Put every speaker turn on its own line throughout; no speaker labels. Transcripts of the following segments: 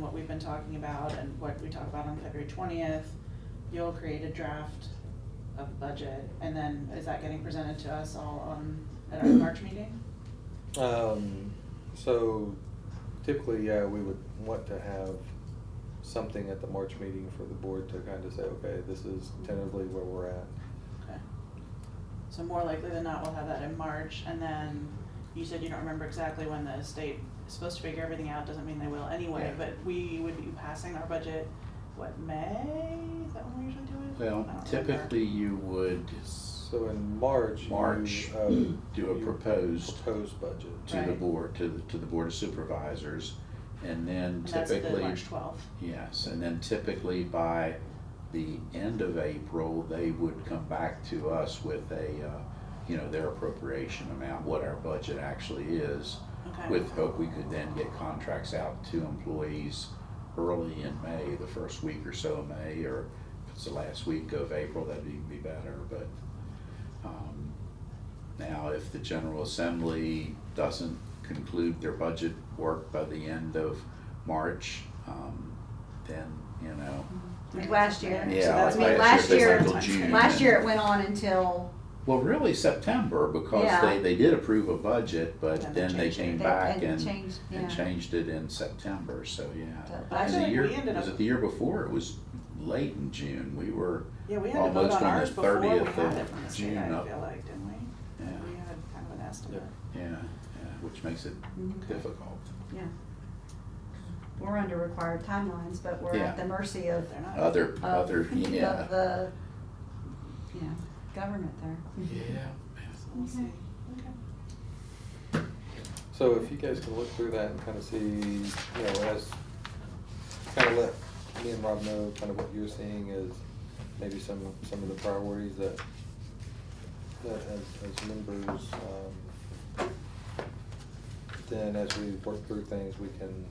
what we've been talking about and what we talk about on February twentieth. You'll create a draft of budget, and then is that getting presented to us all on, at our March meeting?
Um, so typically, yeah, we would want to have something at the March meeting for the board to kind of say, okay, this is tentatively where we're at.
Okay. So more likely than not, we'll have that in March, and then you said you don't remember exactly when the state is supposed to figure everything out, doesn't mean they will anyway,
Yeah.
but we would be passing our budget, what, May? Is that when we usually do it? I don't
Well,
remember.
typically you would
So in March, you,
March,
uh,
do a
you
proposed
Proposed budget.
to the
Right.
board, to, the- to the board of supervisors, and then
And that's the
typically.
March twelfth.
Yes, and then typically by the end of April, they would come back to us with a, uh, you know, their appropriation amount, what our budget actually is,
Okay.
with hope we could then get contracts out to employees early in May, the first week or so of May, or if it's the last week of April, that'd even be better, but, um, now, if the General Assembly doesn't conclude their budget work by the end of March, um, then, you know,
Like last year.
So
Yeah,
that's
I mean,
why- so
last
that's
year-
why it's
June.
Last year it went on until,
well, really September, because
Yeah.
they, they did approve a budget, but
And
then they
changed it.
came
They-
back
and
and,
changed,
and
yeah.
changed it in September, so, yeah.
But
I
And
feel
the
like
year-
we ended up,
Was it the year before? It was late in June, we were,
yeah, we had to vote
almost
on
on the
ours before we
30th
had
of
it from the state,
June
I
up.
feel like, didn't we?
yeah,
We had kind of an estimate.
yeah, yeah, which makes it
Mhm.
difficult.
yeah. We're under required timelines, but we're
Yeah.
at the mercy of,
But they're not.
Other,
of,
other,
of
yeah.
uh, the, you know, government there.
Yeah.
So we'll
Okay.
see. Okay.
So if you guys can look through that and kind of see, you know, as, kind of let me and Rob know kind of what you're seeing is maybe some, some of the priorities that, that as, as members, um, then as we work through things, we can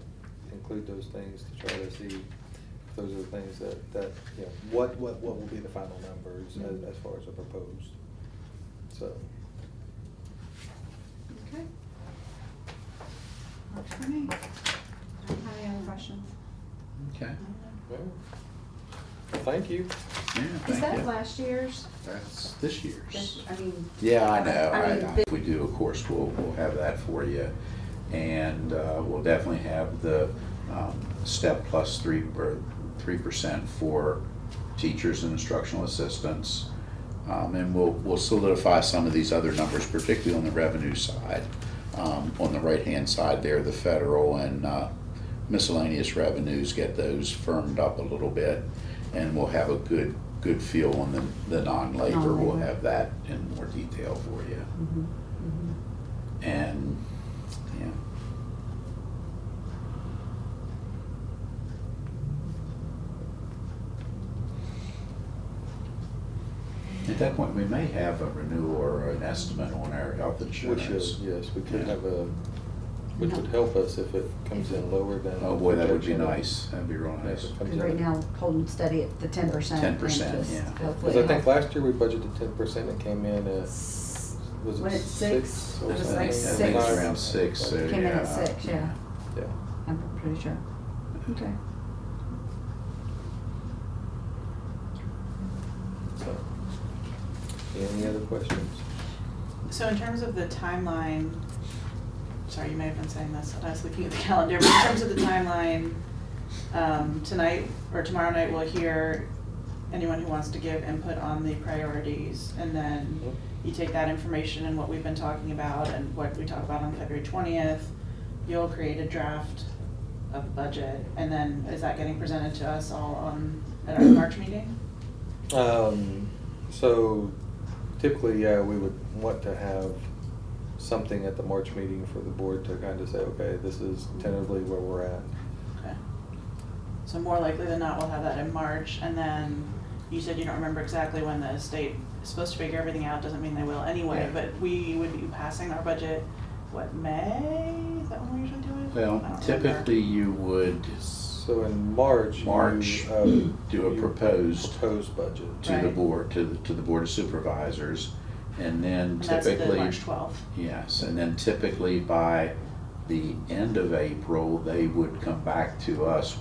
include those things to try to see if those are the things that, that, you know, what, what, what will be the final numbers as, as far as the proposed, so.
Okay. Works for me. I don't have any other questions.
Okay,
yeah. Well, Thank you.
yeah,
Is
thank
that
you.
last year's?
That's this
This,
year's.
I mean.
Yeah, I know,
I mean,
I, I- if we do, of course, we'll, we'll have that for you. And, uh, we'll definitely have the, um, step plus three, or three percent for teachers and instructional assistants. Um, and we'll, we'll solidify some of these other numbers, particularly on the revenue side. Um, on the right-hand side there, the federal and, uh, miscellaneous revenues, get those firmed up a little bit. And we'll have a good, good feel on the, the non-labor, we'll
Non-labor.
have that in more detail for you.
Mhm, mhm.
And, yeah. At that point, we may have a renewal or an estimate on our health
We should,
insurance.
yes, we could have a, which would help us if it comes in lower than.
Oh boy, that would be
projection.
nice, that'd be real
If
nice.
it comes
Cause right
in-
now, holding steady at the ten percent.
10%, yeah.
Cause I think last year we budgeted ten percent, it came in at, was
Was
it
it
six?
six?
or
It was
something?
I
like
Yeah,
think it's
six.
around six, so yeah.
Came in at six, yeah.
Yeah,
I'm pretty sure. Okay.
so. Any other questions?
So in terms of the timeline, sorry, you may have been saying this, and I was looking at the calendar, but in terms of the timeline, um, tonight or tomorrow night, we'll hear anyone who wants to give input on the priorities, and then you take that information and what we've been talking about and what we talk about on February twentieth, you'll create a draft of budget, and then is that getting presented to us all on, at our March meeting?
Um, so typically, yeah, we would want to have something at the March meeting for the board to kind of say, okay, this is tentatively where we're at.
Okay. So more likely than not, we'll have that in March, and then you said you don't remember exactly when the state is supposed to figure everything out, doesn't mean they will anyway,
Yeah.
but we would be passing our budget, what, May? Is that when we usually do it? I don't
Well,
remember.
typically you would
So in March. you,
March,
um,
do a
you
proposed-
Proposed budget.
to the
Right.
board, to, the to the board of supervisors, and then
And that's at the
typically.
March twelfth.
Yes, and then typically by the end of April, they would come back to us